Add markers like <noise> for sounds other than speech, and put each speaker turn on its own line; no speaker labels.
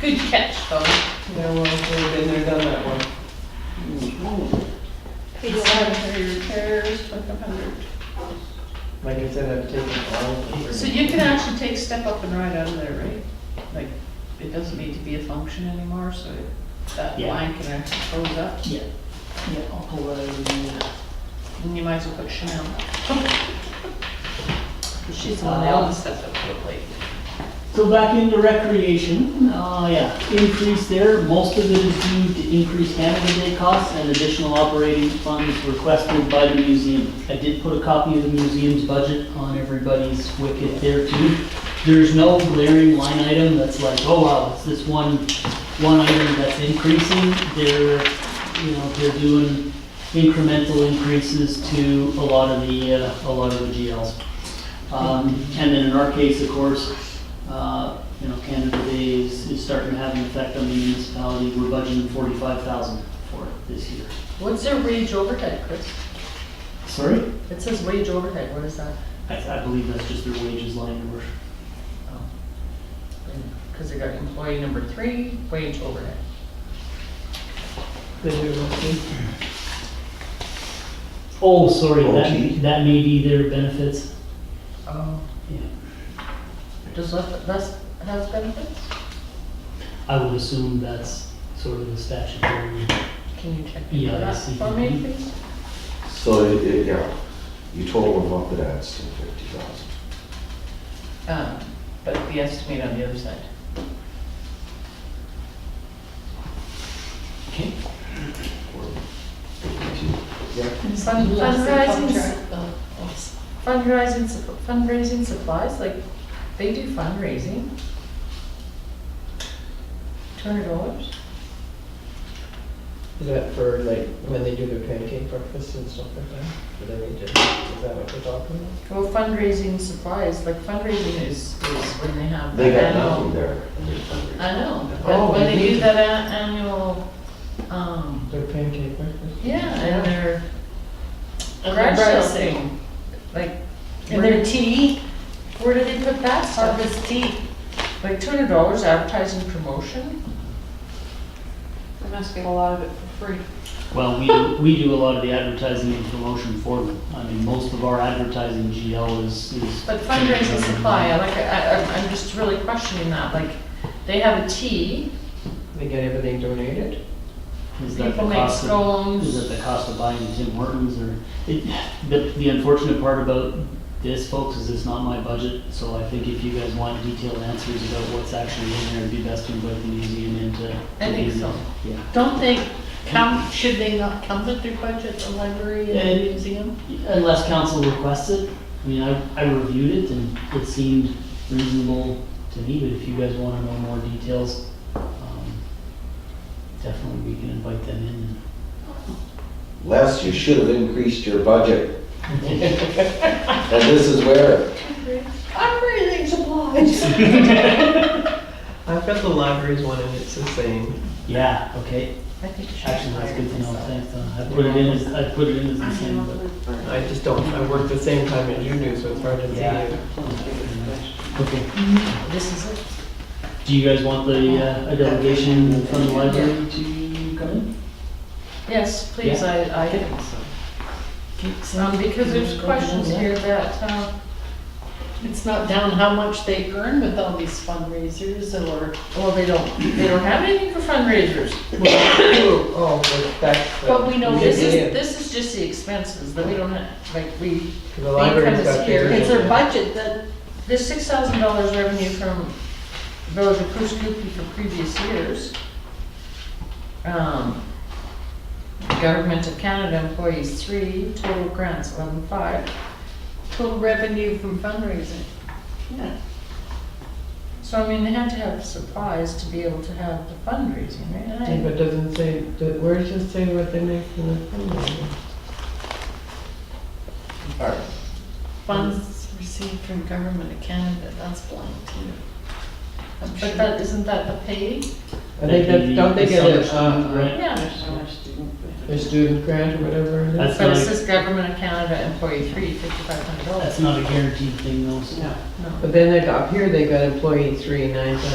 Good catch, though.
Yeah, well, we've been there, done that one.
Page eleven, for your repairs, twenty-five hundred.
Like I said, I've taken all of them.
So you can actually take step up and right out of there, right? Like, it doesn't need to be a function anymore, so that
Yeah.
line can actually close up.
Yeah, yeah, I'll pull that over and move it.
And you might as well put Chanel. 'Cause <laughs> She's the one that always stepped up to the plate.
So back into recreation, uh, yeah, increase there, most of it is due to increased Canada Day costs and additional operating funds requested by the museum. I did put a copy of the museum's budget on everybody's wicket there too. There's no glaring line item that's like, oh wow, it's this one, one item that's increasing. They're, you know, they're doing incremental increases to a lot of the, uh, a lot of the GLs. Um, And then in our case, of course, uh, you know, Canada Day is is starting to have an effect on the municipality. We're budgeting forty-five thousand for it this year.
What's their wage overhead, Chris?
Sorry?
It says wage overhead, what is that?
I I believe that's just their wages line number.
Oh. Because they got employee number three, wage overhead.
Then you will see.
Oh, sorry,
Oh,
that,
gee.
that may be their benefits.
Oh,
Yeah.
does that, that's, has benefits?
I would assume that's sort of the statutory.
Can you check
Yeah,
into
I
that
see. Mm-hmm.
for me, please?
So it, it, yeah, you total them up, it adds to fifty thousand.
Um, But the estimate on the other side.
Okay.
Fundraising,
Fundraising-
fundraising, supp- fundraising supplies, like, they do fundraising. Two hundred dollars?
Is that for like when they do their pancake breakfast and stuff like that? Do they need to, is that what we're talking about?
Well, fundraising supplies, like fundraising is, is when they have.
They
that
got
annual-
nothing there.
I know,
Oh,
but when
they
they do
need
that a- annual, um,
Their pancake breakfast?
yeah, and their
And
garage
their
sale
bread
thing, like.
And
where-
their tea,
Where do they put that stuff?
harvest tea.
Like two hundred dollars advertising promotion?
They must get a lot of it for free.
Well, we, do- we do a lot of the advertising and promotion for them. I mean, most of our advertising GL is. is-
But fundraising supply, I like, I, I'm- I'm just really questioning that, like, they have a tea,
They get everything donated?
Is that the
people make
cost of- Is
scones.
that the cost of buying Tim Hortons or, it, the, the unfortunate part about this, folks, is it's not my budget, so I think if you guys want detailed answers about what's actually in there, it'd be best to invite the museum in to.
I
to
think
do
so.
that. Yeah.
Don't they come, should they not come with their budget, the library and the
And-
museum?
Unless council requests it, I mean, I, I reviewed it and it seemed reasonable to me, but if you guys wanna know more details, um, definitely we can invite them in.
Les, you should have increased your budget. And this is where,
Everything supplies.
I've got the libraries one and it's the same.
Yeah, okay,
I think you should
actually, that's good to know,
hire
thanks, Donna. I put it in as, I put it in as the same, but.
I just don't, I work the same time as you do, so it's hard to see.
Yeah.
it.
Okay,
myself. This is it.
do you guys want the, uh, a delegation from the library to come in?
Yes, please, I, I think so. Um, because there's questions here that, uh,
It's not down how much they earn with all these fundraisers or,
well, they don't, they don't have anything for fundraisers.
Oh, but that's. the-
But we know this is,
Yeah.
this is just the expenses, that we don't have, like, we,
The library's got
here.
theirs.
it's their budget that,
there's six thousand dollars revenue from Village of Kuskookee for previous years. Um, Government of Canada employees, three, total grants, eleven-five.
total revenue from fundraising.
So I mean, they had to have supplies to be able to have the fundraising, right?
Yeah,
And I-
But doesn't say, do- where does it say what they make from the fundraiser?
Funds received from government of Canada, that's blank too. I'm sure.
But that, isn't that the pay?
I think that, don't they get
Summer
a,
student
uh,
grant.
Yeah.
There's so much student.
a student grant or whatever it is?
That's
But it
not,
says Government of Canada employee, three, fifty-five hundred dollars.
that's not a guaranteed thing though, so.
No.
No.
But then they got, up here they got employee three, nine thousand